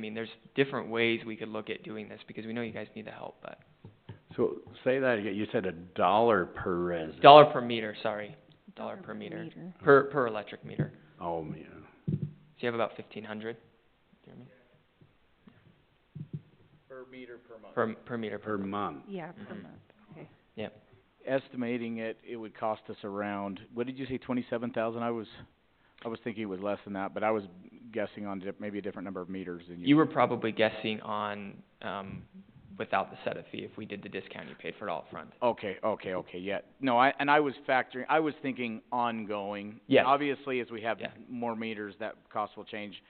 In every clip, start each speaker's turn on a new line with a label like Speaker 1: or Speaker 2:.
Speaker 1: I mean, there's different ways we could look at doing this, because we know you guys need the help, but,
Speaker 2: So, say that again, you said a dollar per resident?
Speaker 1: dollar per meter, sorry, dollar per meter, per, per electric meter.
Speaker 2: Oh, man.
Speaker 1: So you have about fifteen hundred, Jeremy? Per meter, per month. Per, meter, per,
Speaker 2: Per month.
Speaker 3: Yeah, per
Speaker 1: Mhm.
Speaker 3: month, okay.
Speaker 4: estimating it, it would cost us around, what did you say, twenty-seven thousand? I was, I was thinking it was less than that, but I was guessing on di- maybe a different number of meters than you.
Speaker 1: you were probably guessing on, um, without the setup fee, if we did the discount, you paid for it all upfront.
Speaker 4: Okay, okay, okay, yeah. No, I, and I was factoring, I was thinking ongoing.
Speaker 1: Yes.
Speaker 4: Obviously, as we have
Speaker 1: Yeah.
Speaker 4: more meters, that cost will change.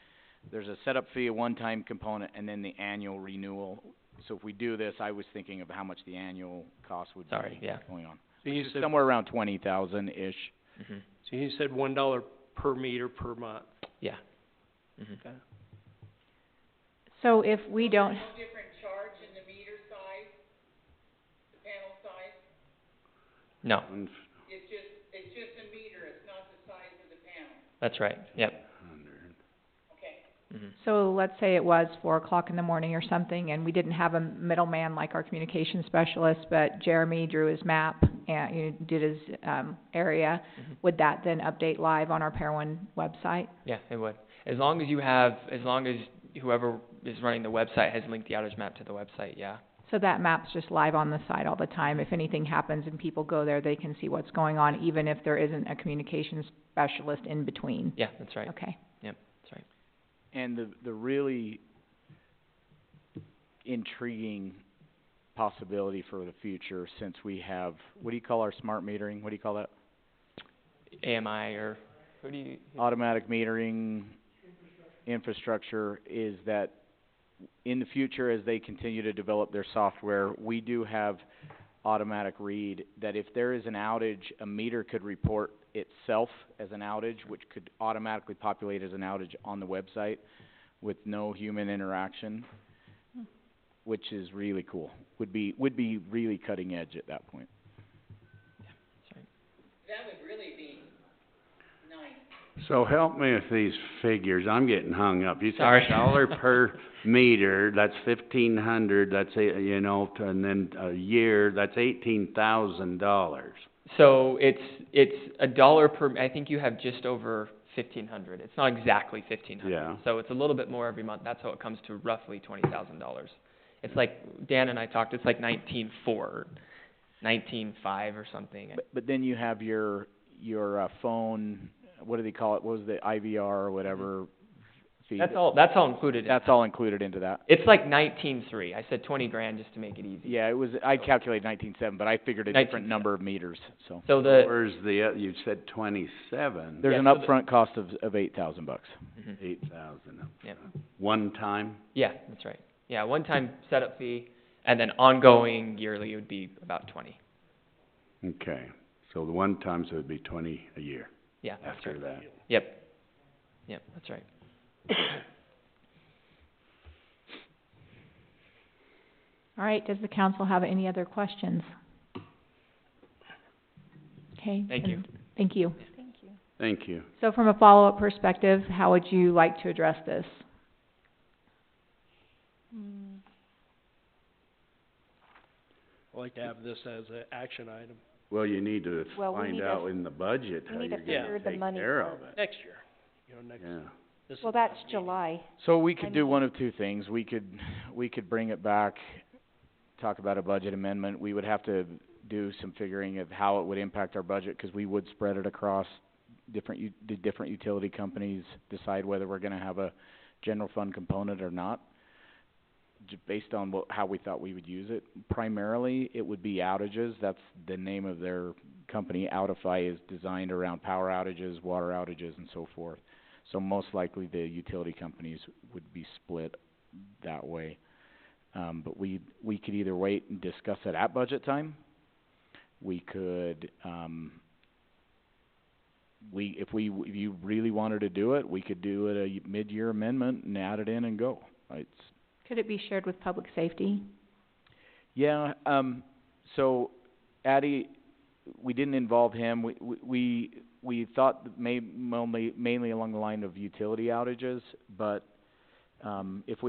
Speaker 4: There's a setup fee, a one-time component, and then the annual renewal. So if we do this, I was thinking of how much the annual cost would be
Speaker 1: Sorry, yeah.
Speaker 4: going on.
Speaker 5: So you
Speaker 4: Which is
Speaker 5: said,
Speaker 4: Somewhere around twenty thousand-ish.
Speaker 1: hmm
Speaker 5: so you said one dollar per meter per month.
Speaker 1: yeah. hmm
Speaker 3: So if we don't,
Speaker 1: No,
Speaker 2: One
Speaker 1: that's right, yep,
Speaker 2: hundred.
Speaker 1: hmm
Speaker 3: so let's say it was four o'clock in the morning or something, and we didn't have a middleman like our communication specialist, but Jeremy drew his map and, you know, did his, um, area,
Speaker 1: Mhm.
Speaker 3: would that then update live on our Parowan website?
Speaker 1: Yeah, it would. As long as you have, as long as whoever is running the website has linked the outage map to the website, yeah.
Speaker 3: So that map's just live on the site all the time, if anything happens and people go there, they can see what's going on, even if there isn't a communications specialist in between,
Speaker 1: Yeah, that's right,
Speaker 3: okay?
Speaker 1: that's right.
Speaker 4: And the, the really intriguing possibility for the future, since we have, what do you call our smart metering, what do you call that?
Speaker 1: AMI or, Uh, who do you,
Speaker 4: Automatic metering infrastructure is that in the future, as they continue to develop their software, we do have automatic read, that if there is an outage, a meter could report itself as an outage, which could automatically populate as an outage on the website with no human interaction, which is really cool. Would be, would be really cutting edge at that point.
Speaker 1: that's right.
Speaker 2: So help me with these figures, I'm getting hung up. You said
Speaker 1: Sorry.
Speaker 2: a dollar per meter, that's fifteen hundred, that's a, you know, t- and then a year, that's eighteen thousand dollars.
Speaker 1: So it's, it's a dollar per, I think you have just over fifteen hundred. It's not exactly fifteen hundred.
Speaker 2: Yeah.
Speaker 1: So it's a little bit more every month. That's how it comes to roughly twenty thousand dollars. It's like, Dan and I talked, it's like nineteen four, nineteen five or something.
Speaker 4: But, but then you have your, your, uh, phone, what do they call it, what was the IVR or whatever fee?
Speaker 1: Mm-hmm. That's all, that's all included in
Speaker 4: That's all included into that.
Speaker 1: It's like nineteen three. I said twenty grand just to make it easy.
Speaker 4: Yeah, it was, I calculated nineteen-seven, but I figured a different
Speaker 1: 19.7.
Speaker 4: number of meters, so.
Speaker 1: So the,
Speaker 2: Where's the, oth- you said twenty-seven,
Speaker 4: There's
Speaker 1: Yeah,
Speaker 4: an
Speaker 1: so the-
Speaker 4: upfront cost of, of eight thousand bucks.
Speaker 1: Mhm.
Speaker 2: eight thousand.
Speaker 1: Yep.
Speaker 2: One time?
Speaker 1: yeah, that's right. Yeah, one-time setup fee, and then ongoing yearly would be about twenty.
Speaker 2: Okay, so the one times it would be twenty a year
Speaker 1: Yeah, that's
Speaker 2: after
Speaker 1: right.
Speaker 2: that.
Speaker 1: Yep. Yep, that's right.
Speaker 3: All right, does the council have any other questions? Okay.
Speaker 1: Thank you.
Speaker 3: then- Thank you.
Speaker 2: Thank you.
Speaker 3: So from a follow-up perspective, how would you like to address this?
Speaker 5: I'd like to have this as an action item
Speaker 2: Well, you need to
Speaker 6: Well, we
Speaker 2: find
Speaker 6: need to
Speaker 2: out
Speaker 6: f-
Speaker 2: in the budget
Speaker 6: we
Speaker 2: how
Speaker 6: need
Speaker 2: you're
Speaker 6: to
Speaker 5: figure
Speaker 2: gonna
Speaker 6: the
Speaker 2: take
Speaker 6: money
Speaker 2: care of
Speaker 6: first.
Speaker 2: it,
Speaker 5: next year, you know, next,
Speaker 2: yeah.
Speaker 5: this is
Speaker 6: Well,
Speaker 5: the
Speaker 6: that's
Speaker 5: last meeting.
Speaker 6: July.
Speaker 4: So we
Speaker 6: I
Speaker 4: could do
Speaker 6: mean-
Speaker 4: one of two things. We could, we could bring it back, talk about a budget amendment. We would have to do some figuring of how it would impact our budget, 'cause we would spread it across different u- the different utility companies, decide whether we're gonna have a general fund component or not, j- based on what, how we thought we would use it. Primarily, it would be outages. That's the name of their company. Outify is designed around power outages, water outages, and so forth. So most likely the utility companies would be split that way. Um, but we, we could either wait and discuss it at budget time. We could, um, we, if we, if you really wanted to do it, we could do it a y- mid-year amendment and add it in and go. It's,
Speaker 3: Could it be shared with public safety?
Speaker 4: yeah, um, so Addy, we didn't involve him, we, we- we, we thought that may, mainly, mainly along the line of utility outages, but, um, if we